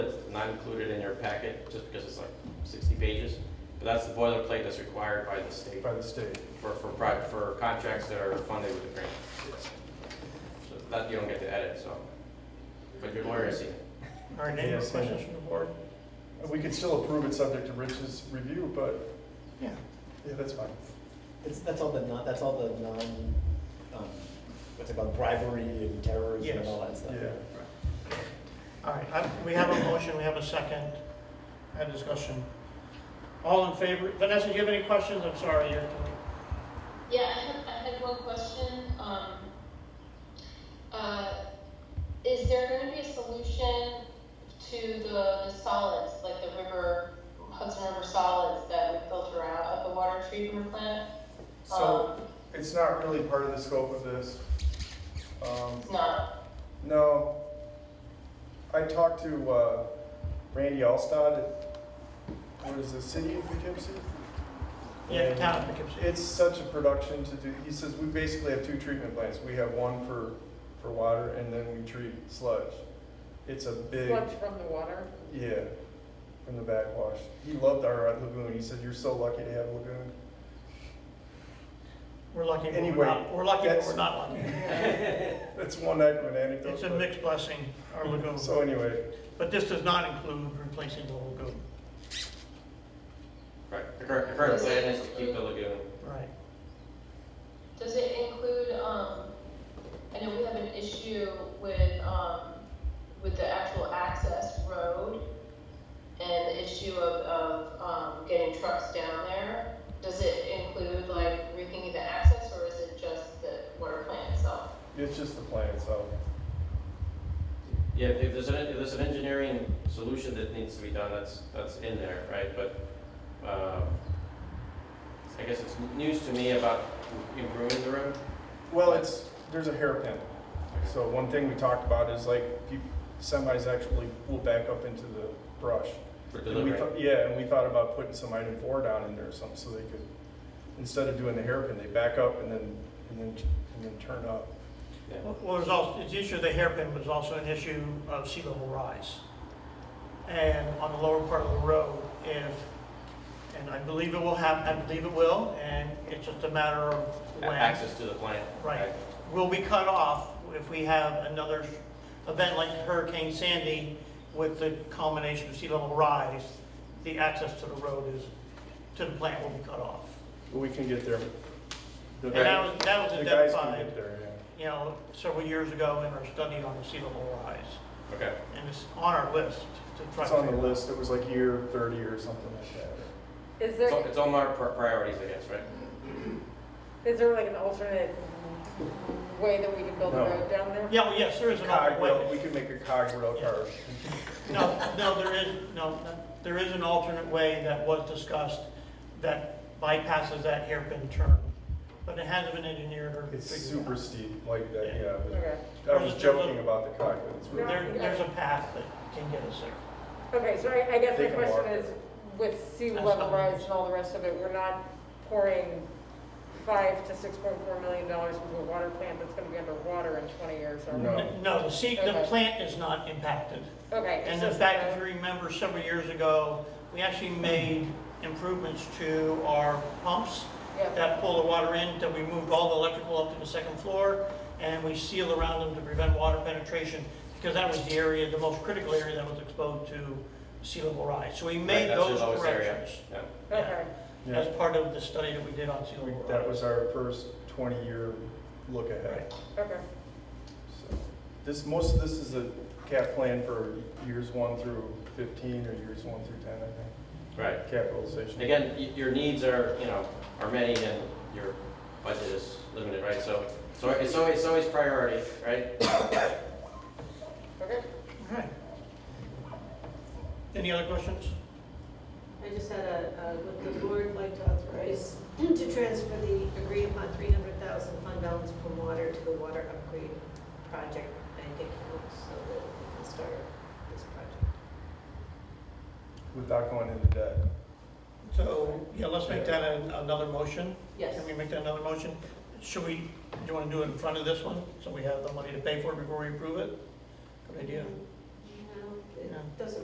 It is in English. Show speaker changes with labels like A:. A: not included in your packet, just because it's like sixty pages. But that's the boilerplate that's required by the state
B: by the state.
A: for, for private, for contracts that are funded with the grant. So that, you don't get to edit, so, but your lawyer has seen it.
C: All right, any more
B: Yes.
C: questions from the board?
B: We could still approve it subject to Rich's review, but,
C: Yeah.
B: yeah, that's fine.
D: It's, that's all the non, that's all the non, um, what's it called, bribery and terrorism
C: Yes.
D: and all that stuff.
B: Yeah.
C: All right, I- we have a motion, we have a second, had discussion. All in favor, Vanessa, do you have any questions? I'm sorry, you're,
E: Yeah, I had, I had one question. Um, uh, is there going to be a solution to the, the solids, like the river, Hudson River solids that we filter out of the water treatment plant? Um,
B: So it's not really part of the scope of this. Um,
E: It's not.
B: No. I talked to uh, Randy Alstad, what is the city of Poughkeepsie?
C: yeah, town
B: Um,
C: of Poughkeepsie.
B: It's such a production to do, he says, we basically have two treatment plants. We have one for, for water and then we treat sludge. It's a big.
F: Sludge from the water.
B: Yeah, from the backwash. He loved our lagoon. He said, "You're so lucky to have a lagoon."
C: We're lucky, but we're
B: Anyway,
C: not, we're lucky, but
B: that's-
C: we're not lucky.
B: That's one night of an anecdote.
C: It's a
B: but-
C: mixed blessing, our lagoon.
B: So anyway,
C: But this does not include replacing the lagoon.
A: Right, the current, the current plan is to keep the lagoon.
C: Right.
E: Does it include, um, I know we have an issue with, um, with the actual access road and the issue of, of, um, getting trucks down there. Does it include like rethinking the access or is it just the water plant itself?
B: it's just the plan itself.
A: Yeah, if if there's an, if there's an engineering solution that needs to be done, that's, that's in there, right? But, um, I guess it's news to me about improving the room.
B: Well, it's there's a hairpin. So one thing we talked about is like peop semis actually will back up into the brush.
A: For
B: And we
A: delivery.
B: thought, yeah, and we thought about putting some item four down in there or something, so they could instead of doing the hairpin, they back up and then and then and then turn up.
A: Yeah.
C: Well, there's also, the issue of the hairpin was also an issue of sea level rise. And on the lower part of the road, if, and I believe it will happen, I believe it will, and it's just a matter of
A: A-
C: when.
A: Access to the plant.
C: Right. Will we cut off if we have another event like Hurricane Sandy with the culmination of sea level rise? The access to the road is, to the plant will be cut off.
B: But we can get there. The,
C: And that was, that was
B: the guys
C: identified.
B: can get there. Yeah.
C: you know, several years ago in our study on the sea level rise.
A: Okay,
C: And it's on our list to try to.
B: It's on the
C: figure out.
B: list, it was like year thirty or something like that.
F: Is
A: it's,
F: there,
A: on- it's on our pri- priorities, I guess, right?
F: is there like an alternate way that we could build a
B: No.
F: road down there?
C: Yeah, well, yes, there is an alternate
B: Cog rail, we
C: way.
B: can make a cog rail
C: Yeah.
B: car.
C: No, no, there is, no, no, there is an alternate way that was discussed that bypasses that hairpin turn. But it hasn't been engineered or
B: It's
C: figured
B: super
C: out.
B: steep, like that,
C: Yeah.
B: yeah.
F: Okay,
B: but I was joking about the cog, but it's really,
C: There, there's a path that can get us there.
F: okay, so I, I guess
B: They
F: my
B: can
F: question
B: walk.
F: is, with sea
C: That's
F: level
C: fine.
F: rise and all the rest of it, we're not pouring five to six point four million dollars into a water plant that's gonna be underwater in twenty years, are we?
B: No.
C: N- No, the sea, the
F: Okay.
C: plant is not impacted.
F: Okay.
C: And
F: so-
C: in fact, if you remember several years ago, we actually made improvements to our pumps
F: Yeah,
C: that pull the water in, that we moved all the electrical up to the second floor, and we sealed around them to prevent water penetration, because that was the area, the most critical area that was exposed to sea level rise. So we made
A: Right, that's your
C: those
A: lowest area.
C: corrections
A: Yeah.
F: okay,
C: as
B: yeah,
C: part of the study that we did on sea
B: we-
C: level
B: that
C: rise.
B: was our first twenty-year look ahead.
F: okay.
B: So, This, most of this is a cap plan for years one through fifteen or years one through ten, I
A: Right.
B: think, capitalization.
A: Again, y- your needs are, you know, are many and your budget is limited, right? So, so it's always, it's always priority, right?
F: Okay.
C: Right. Any other questions?
G: I just had a, a- would the board like to authorize to transfer the agreed upon three hundred thousand fund balance from water to the water upgrade project bank account so that we can start this project?
B: Without going into debt.
C: So, yeah, let's make that an- another motion.
G: Yes.
C: Can we make that another motion? Should we, do you want to do it in front of this one, so we have the money to pay for it before we approve it? Good idea.
G: No,
C: No.
G: it doesn't